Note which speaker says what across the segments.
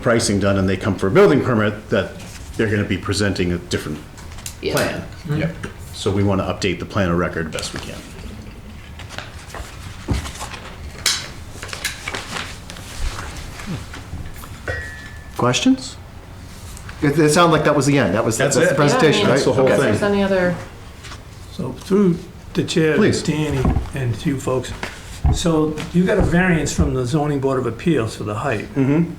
Speaker 1: pricing done and they come for a building permit, that they're gonna be presenting a different
Speaker 2: Yeah.
Speaker 1: plan. Yep. So we wanna update the plan of record best we can. Questions?
Speaker 3: It, it sounded like that was the end. That was,
Speaker 1: That's
Speaker 3: that's the
Speaker 1: it.
Speaker 3: presentation,
Speaker 2: Yeah, I mean,
Speaker 1: That's
Speaker 3: right?
Speaker 1: the whole
Speaker 3: Okay.
Speaker 1: thing.
Speaker 2: If there's any other,
Speaker 4: So through the chair,
Speaker 3: Please.
Speaker 4: Danny and to you folks, so you got a variance from the zoning board of appeals for the height. Mm-hmm.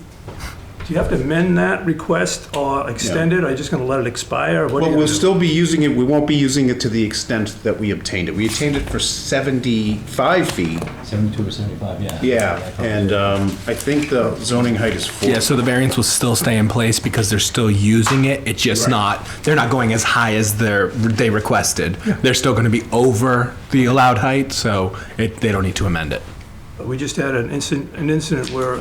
Speaker 4: Do you have to amend that request or extend it, or are you just gonna let it expire? or What are
Speaker 1: But
Speaker 4: you
Speaker 1: we'll
Speaker 4: gonna do?
Speaker 1: still be using it, we won't be using it to the extent that we obtained it. We obtained it for 75 feet,
Speaker 5: 72 or 75, yeah.
Speaker 1: yeah, and um, I think the zoning height is 40.
Speaker 6: Yeah, so the variance will still stay in place because they're still using it. It's just not, they're not going as high as they're, they requested. They're still going to be over the allowed height, so it, they don't need to amend it.
Speaker 4: We just had an incident, an incident where,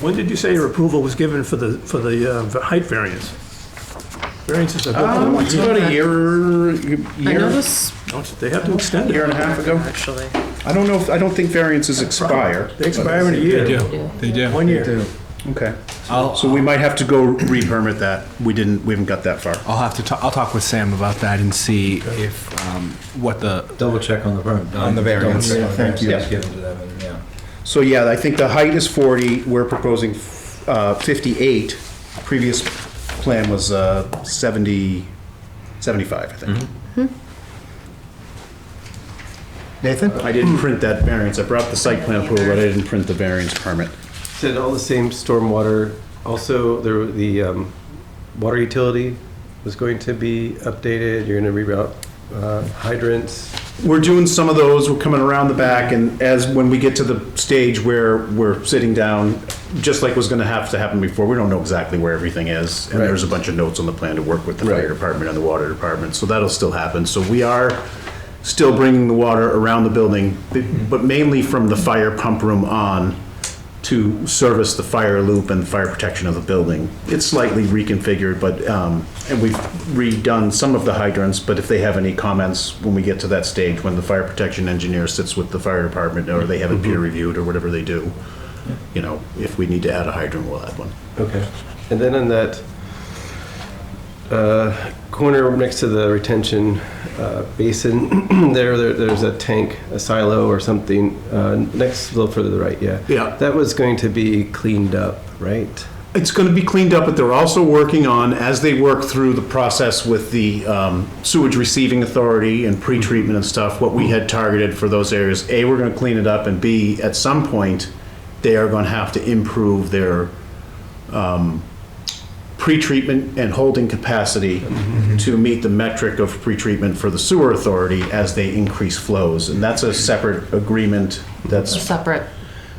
Speaker 4: when did you say your approval was given for the, for the uh, v- height variance? Variances are
Speaker 1: Um,
Speaker 4: good
Speaker 1: It's
Speaker 4: for
Speaker 1: about a year,
Speaker 2: I know
Speaker 1: year,
Speaker 2: this,
Speaker 4: Don't- they have to extend
Speaker 1: year and
Speaker 4: it.
Speaker 1: a half ago.
Speaker 2: actually,
Speaker 1: I don't know, if- I don't think variances expire.
Speaker 4: They expire in a year,
Speaker 6: They do.
Speaker 4: one year.
Speaker 1: Okay.
Speaker 6: I'll-
Speaker 1: So we might have to go re-permit that. We didn't, we haven't got that far.
Speaker 6: I'll have to, ta- I'll talk with Sam about that and see if, um, what the,
Speaker 5: Double check on the permit.
Speaker 6: On the variance.
Speaker 5: Double check on the
Speaker 1: Thank you.
Speaker 5: variance given to that, and, yeah.
Speaker 1: So yeah, I think the height is 40, we're proposing uh, 58. Previous plan was uh, 70, 75, I think.
Speaker 3: Nathan?
Speaker 1: I didn't print that variance. I brought the site plan approval, but I didn't print the variance permit.
Speaker 7: Said all the same stormwater, also there, were- the um, water utility was going to be updated, you're gonna reroute uh, hydrants.
Speaker 1: we're doing some of those, we're coming around the back, and as, when we get to the stage where we're sitting down, just like was gonna have to happen before, we don't know exactly where everything is, and there's a bunch of notes on the plan to work with the fire department and the water department, so that'll still happen, so we are still bringing the water around the building, but mainly from the fire pump room on to service the fire loop and fire protection of the building. It's slightly reconfigured, but, um, and we've redone some of the hydrants, but if they have any comments when we get to that stage, when the fire protection engineer sits with the fire department, or they have it peer reviewed, or whatever they do, you know, if we need to add a hydrant, we'll add one.
Speaker 7: Okay. And then on that uh, corner next to the retention uh, basin, there, there- there's a tank, a silo or something, uh, next, a little further to the right, yeah.
Speaker 1: Yeah.
Speaker 7: That was going to be cleaned up, right?
Speaker 1: It's going to be cleaned up, but they're also working on, as they work through the process with the um, sewage receiving authority and pretreatment and stuff, what we had targeted for those areas, A, we're going to clean it up, and B, at some point, they are going to have to improve their um, pretreatment and holding capacity to meet the metric of pretreatment for the sewer authority as they increase flows. And that's a separate agreement that's
Speaker 2: a separate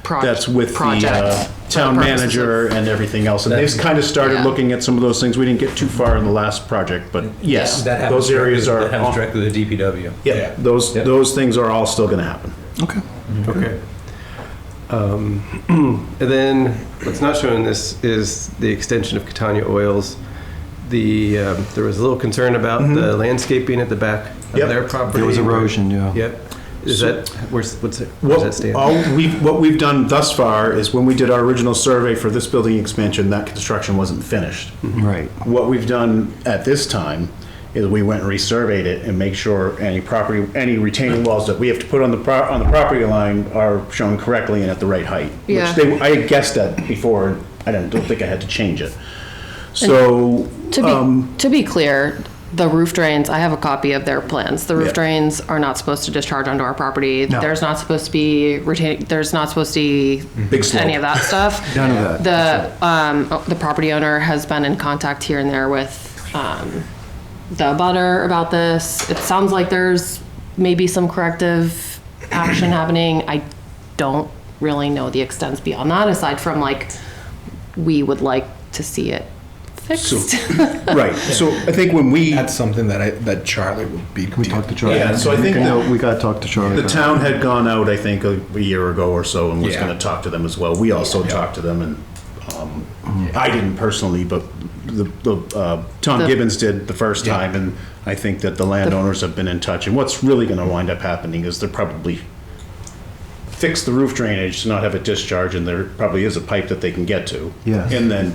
Speaker 2: project.
Speaker 1: that's with the uh, town manager and everything else. And they've kind of started
Speaker 2: Yeah.
Speaker 1: looking at some of those things. We didn't get too far in the last project, but yes,
Speaker 5: That happens
Speaker 1: those areas
Speaker 5: directly-
Speaker 1: are,
Speaker 5: That happens
Speaker 1: all-
Speaker 5: directly to the DPW.
Speaker 1: yeah, those,
Speaker 5: Yeah.
Speaker 1: those things are all still gonna happen.
Speaker 6: okay.
Speaker 7: Okay. Um, And then, what's not shown in this is the extension of Catania Oils. The, um, there was a little concern about the landscaping at the back of
Speaker 1: Mm-hmm. Yep.
Speaker 7: their property.
Speaker 3: There was erosion, yeah.
Speaker 7: Yep. Is that, where's, what's it, where's that
Speaker 1: What,
Speaker 7: stand?
Speaker 1: all we, what we've done thus far is when we did our original survey for this building expansion, that construction wasn't finished.
Speaker 3: Right.
Speaker 1: What we've done at this time is we went and resurveyed it and make sure any property, any retaining walls that we have to put on the pro, on the property line are shown correctly and at the right height.
Speaker 2: Yeah.
Speaker 1: Which they, I guessed that before, I don't, don't think I had to change it. So,
Speaker 2: To
Speaker 1: um,
Speaker 2: be, to be clear, the roof drains, I have a copy of their plans. The
Speaker 1: Yeah.
Speaker 2: roof drains are not supposed to discharge onto our property. There's not supposed to be retain, there's not supposed to be
Speaker 1: Big slope.
Speaker 2: any of that stuff.
Speaker 3: None of
Speaker 2: The, um, oh, the property owner has been in contact here and there with, um, the butter about this. It sounds like there's maybe some corrective action happening. I don't really know the extents beyond that, aside from like, we would like to see it fixed.
Speaker 1: right, so I think when we,
Speaker 6: That's something that I, that Charlie would be.
Speaker 3: We talked to Charlie.
Speaker 1: Yeah, so I think
Speaker 3: We gotta-
Speaker 1: the-
Speaker 3: We gotta talk to Charlie.
Speaker 1: the
Speaker 3: about
Speaker 1: town had gone out, I think, a a year ago or so and was
Speaker 6: Yeah.
Speaker 1: gonna talk to them as well. We also talked to them and, um, I didn't personally, but the, the, uh, Tom
Speaker 2: The-
Speaker 1: Gibbons did the first time and I think that the landowners have been in touch. And what's really gonna wind up happening is they're probably fix the roof drainage to not have it discharge and there probably is a pipe that they can get to.
Speaker 3: Yes.
Speaker 1: And then